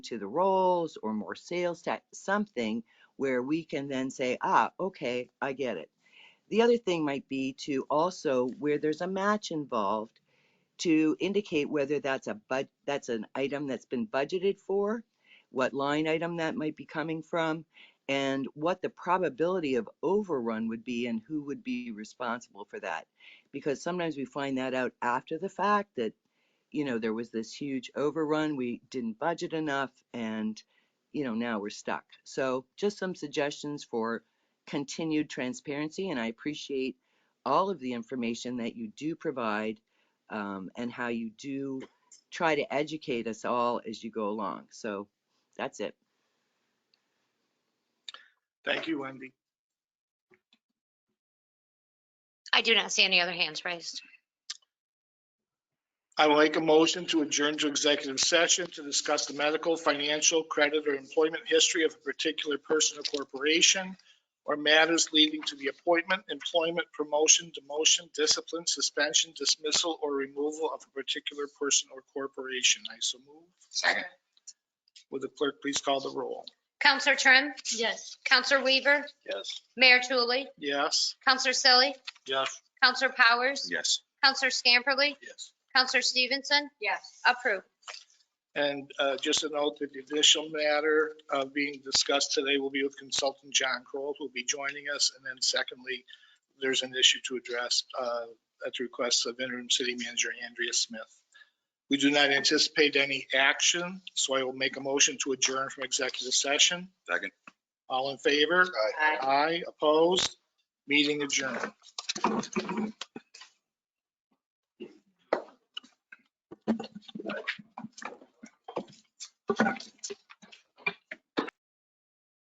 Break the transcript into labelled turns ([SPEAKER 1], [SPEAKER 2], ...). [SPEAKER 1] to the rolls or more sales tax, something where we can then say, ah, okay, I get it. The other thing might be to also where there's a match involved to indicate whether that's a bud, that's an item that's been budgeted for, what line item that might be coming from, and what the probability of overrun would be and who would be responsible for that. Because sometimes we find that out after the fact that, you know, there was this huge overrun, we didn't budget enough, and, you know, now we're stuck. So just some suggestions for continued transparency, and I appreciate all of the information that you do provide um, and how you do try to educate us all as you go along. So that's it.
[SPEAKER 2] Thank you, Wendy.
[SPEAKER 3] I do not see any other hands raised.
[SPEAKER 2] I will make a motion to adjourn to executive session to discuss the medical, financial, credit, or employment history of a particular person or corporation or matters leading to the appointment, employment, promotion, demotion, discipline, suspension, dismissal, or removal of a particular person or corporation. I so move.
[SPEAKER 3] Second.
[SPEAKER 2] Would the clerk please call the roll?
[SPEAKER 3] Counselor Trim,
[SPEAKER 4] Yes.
[SPEAKER 3] Counselor Weaver,
[SPEAKER 2] Yes.
[SPEAKER 3] Mayor Tully,
[SPEAKER 2] Yes.
[SPEAKER 3] Counselor Selly,
[SPEAKER 2] Yes.
[SPEAKER 3] Counselor Powers,
[SPEAKER 2] Yes.
[SPEAKER 3] Counselor Scamperly,
[SPEAKER 2] Yes.
[SPEAKER 3] Counselor Stevenson,
[SPEAKER 4] Yes.
[SPEAKER 3] approved.
[SPEAKER 2] And uh, just a note, the judicial matter uh, being discussed today will be with consultant John Kroll, who will be joining us. And then secondly, there's an issue to address uh, at the request of interim city manager Andrea Smith. We do not anticipate any action, so I will make a motion to adjourn from executive session.
[SPEAKER 5] Second.
[SPEAKER 2] All in favor? Aye, opposed? Meeting adjourned.